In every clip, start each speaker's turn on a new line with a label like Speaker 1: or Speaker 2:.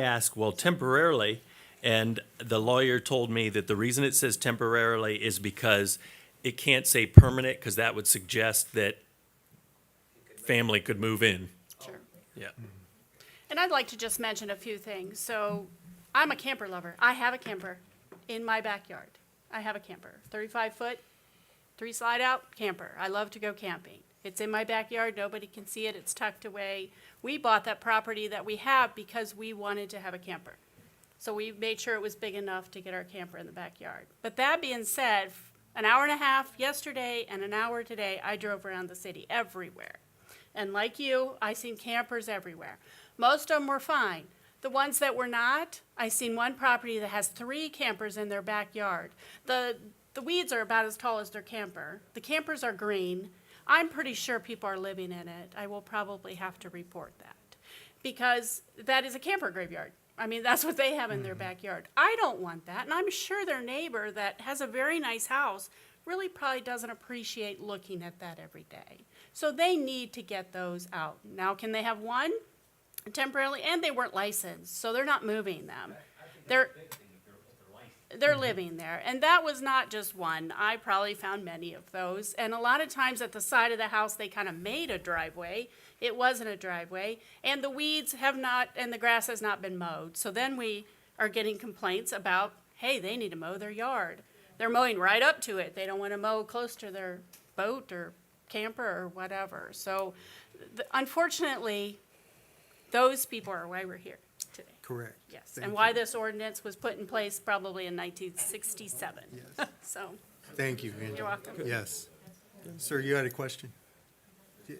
Speaker 1: asked, well, temporarily, and the lawyer told me that the reason it says temporarily is because it can't say permanent, because that would suggest that family could move in.
Speaker 2: Sure.
Speaker 1: Yeah.
Speaker 2: And I'd like to just mention a few things. So I'm a camper lover. I have a camper in my backyard. I have a camper, 35 foot, three slide out camper. I love to go camping. It's in my backyard. Nobody can see it. It's tucked away. We bought that property that we have because we wanted to have a camper. So we made sure it was big enough to get our camper in the backyard. But that being said, f- an hour and a half yesterday and an hour today, I drove around the city everywhere. And like you, I seen campers everywhere. Most of them were fine. The ones that were not, I seen one property that has three campers in their backyard. The, the weeds are about as tall as their camper. The campers are green. I'm pretty sure people are living in it. I will probably have to report that because that is a camper graveyard. I mean, that's what they have in their backyard. I don't want that. And I'm sure their neighbor that has a very nice house really probably doesn't appreciate looking at that every day. So they need to get those out. Now, can they have one temporarily? And they weren't licensed, so they're not moving them. They're, they're living there. And that was not just one. I probably found many of those. And a lot of times at the side of the house, they kind of made a driveway. It wasn't a driveway. And the weeds have not, and the grass has not been mowed. So then we are getting complaints about, hey, they need to mow their yard. They're mowing right up to it. They don't want to mow close to their boat or camper or whatever. So th- unfortunately, those people are why we're here today.
Speaker 3: Correct.
Speaker 2: Yes,
Speaker 3: Thank
Speaker 2: and
Speaker 3: you.
Speaker 2: why this ordinance was put in place probably in 1967.
Speaker 3: Yes.
Speaker 2: So,
Speaker 3: Thank you,
Speaker 2: you're
Speaker 3: Angela.
Speaker 2: welcome.
Speaker 3: Yes. Sir, you had a question?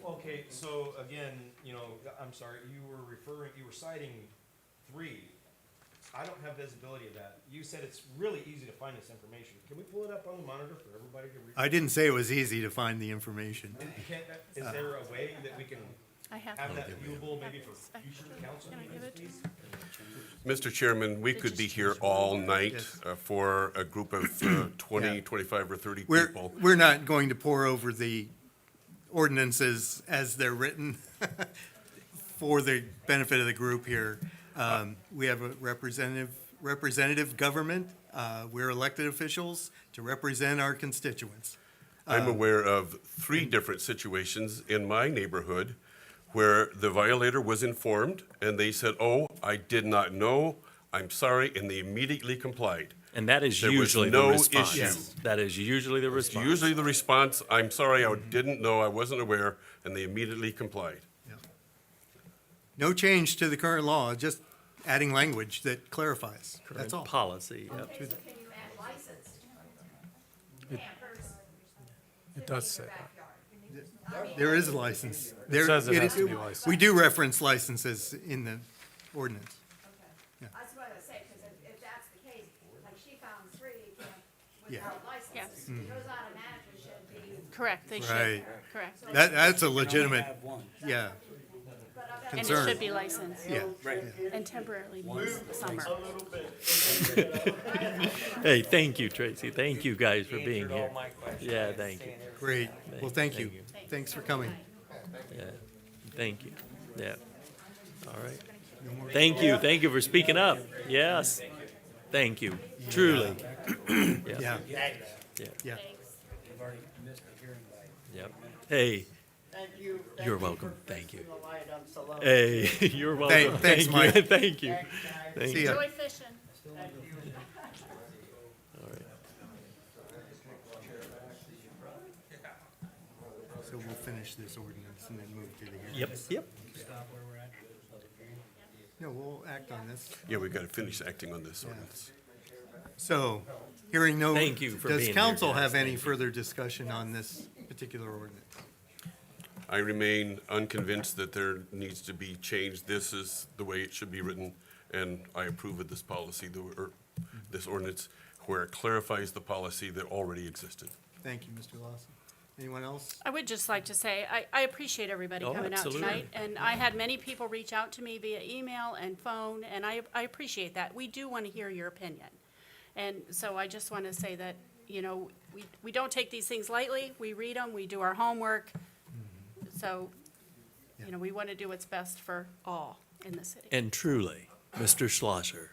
Speaker 4: Okay, so again, you know, I'm sorry, you were referring, you were citing three. I don't have visibility of that. You said it's really easy to find this information. Can we pull it up on the monitor for everybody to read?
Speaker 3: I didn't say it was easy to find the information.
Speaker 4: Can, is there a way that we can
Speaker 2: I have,
Speaker 4: have that viewable maybe for future council
Speaker 2: Can I give
Speaker 4: meetings,
Speaker 2: it to
Speaker 4: please?
Speaker 5: Mr. Chairman, we could be here all night
Speaker 3: Yes.
Speaker 5: uh, for a group of uh, 20,
Speaker 3: Yeah.
Speaker 5: 25, or 30
Speaker 3: We're,
Speaker 5: people.
Speaker 3: we're not going to pour over the ordinances as they're written for the benefit of the group here. Um, We have a representative, representative government. Uh, We're elected officials to represent our constituents. um,
Speaker 5: I'm aware of three different situations in my neighborhood where the violator was informed, and they said, "Oh, I did not know, I'm sorry," and they immediately complied.
Speaker 1: And that is
Speaker 5: There was
Speaker 1: usually the
Speaker 5: no
Speaker 1: response.
Speaker 5: issue.
Speaker 1: That is usually the response.
Speaker 5: Usually the response, "I'm sorry, I didn't know, I wasn't aware," and they immediately complied.
Speaker 3: No change to the current law, just adding language that clarifies. That's all.
Speaker 1: Policy, yep.
Speaker 6: Okay, so can you add licensed campers
Speaker 7: It
Speaker 6: in
Speaker 7: does say
Speaker 6: your
Speaker 7: that.
Speaker 6: backyard?
Speaker 3: There is a license. There-
Speaker 7: says it has to be
Speaker 3: is-
Speaker 7: licensed.
Speaker 3: We do reference licenses in the ordinance.
Speaker 6: That's what I was saying, because if, if that's the case, like she found three camp-
Speaker 3: Yeah.
Speaker 6: without
Speaker 2: Yes.
Speaker 6: licenses, those automatically should be,
Speaker 2: correct, they should,
Speaker 3: Right.
Speaker 2: correct.
Speaker 3: That, that's a legitimate, yeah,
Speaker 6: but I bet
Speaker 2: And it
Speaker 3: concern.
Speaker 2: should be licensed
Speaker 3: yeah.
Speaker 2: and temporarily summer.
Speaker 1: Hey, thank you, Tracy. Thank you guys for being
Speaker 8: answered
Speaker 4: Oh,
Speaker 8: all
Speaker 1: here.
Speaker 8: my questions.
Speaker 1: Yeah,
Speaker 8: I
Speaker 1: thank you.
Speaker 8: understand everything.
Speaker 3: Great. Well, thank you.
Speaker 1: Thank
Speaker 3: Thanks for coming.
Speaker 1: Thank you. Yeah. All right. Thank you. Thank you for speaking up. Yes. Thank you. Truly.
Speaker 3: Yeah,
Speaker 1: Yeah.
Speaker 3: yeah.
Speaker 8: You've already missed the hearing by.
Speaker 1: Yep. Hey,
Speaker 9: Thank you. Thank
Speaker 1: You're
Speaker 9: you for
Speaker 1: welcome. Thank you.
Speaker 9: fixing the light on Salone.
Speaker 1: hey, you're welcome. Thank
Speaker 3: thanks,
Speaker 1: you.
Speaker 3: Mike.
Speaker 1: Thank you.
Speaker 9: Thanks,
Speaker 1: Thank
Speaker 3: See
Speaker 1: you.
Speaker 3: ya.
Speaker 2: Enjoy fishing.
Speaker 3: So we'll finish this ordinance and then move to the hearing.
Speaker 1: Yep, yep.
Speaker 3: No, we'll act on this.
Speaker 5: Yeah, we've got to finish acting on this ordinance.
Speaker 3: So, hearing no.
Speaker 1: Thank you for being here,
Speaker 3: Does council
Speaker 1: guys.
Speaker 3: have any
Speaker 1: Thank you.
Speaker 3: further discussion on this particular ordinance?
Speaker 5: I remain unconvinced that there needs to be change. This is the way it should be written, and I approve of this policy, the- or this ordinance, where it clarifies the policy that already existed.
Speaker 3: Thank you, Mr. Lawson. Anyone else?
Speaker 2: I would just like to say, I, I appreciate everybody
Speaker 1: Oh,
Speaker 2: coming out
Speaker 1: absolutely.
Speaker 2: tonight. And I had many people reach out to me via email and phone, and I, I appreciate that. We do want to hear your opinion. And so I just want to say that, you know, we, we don't take these things lightly. We read them, we do our homework. So, you know, we want to do what's best for all in the city.
Speaker 1: And truly, Mr. Schlosser.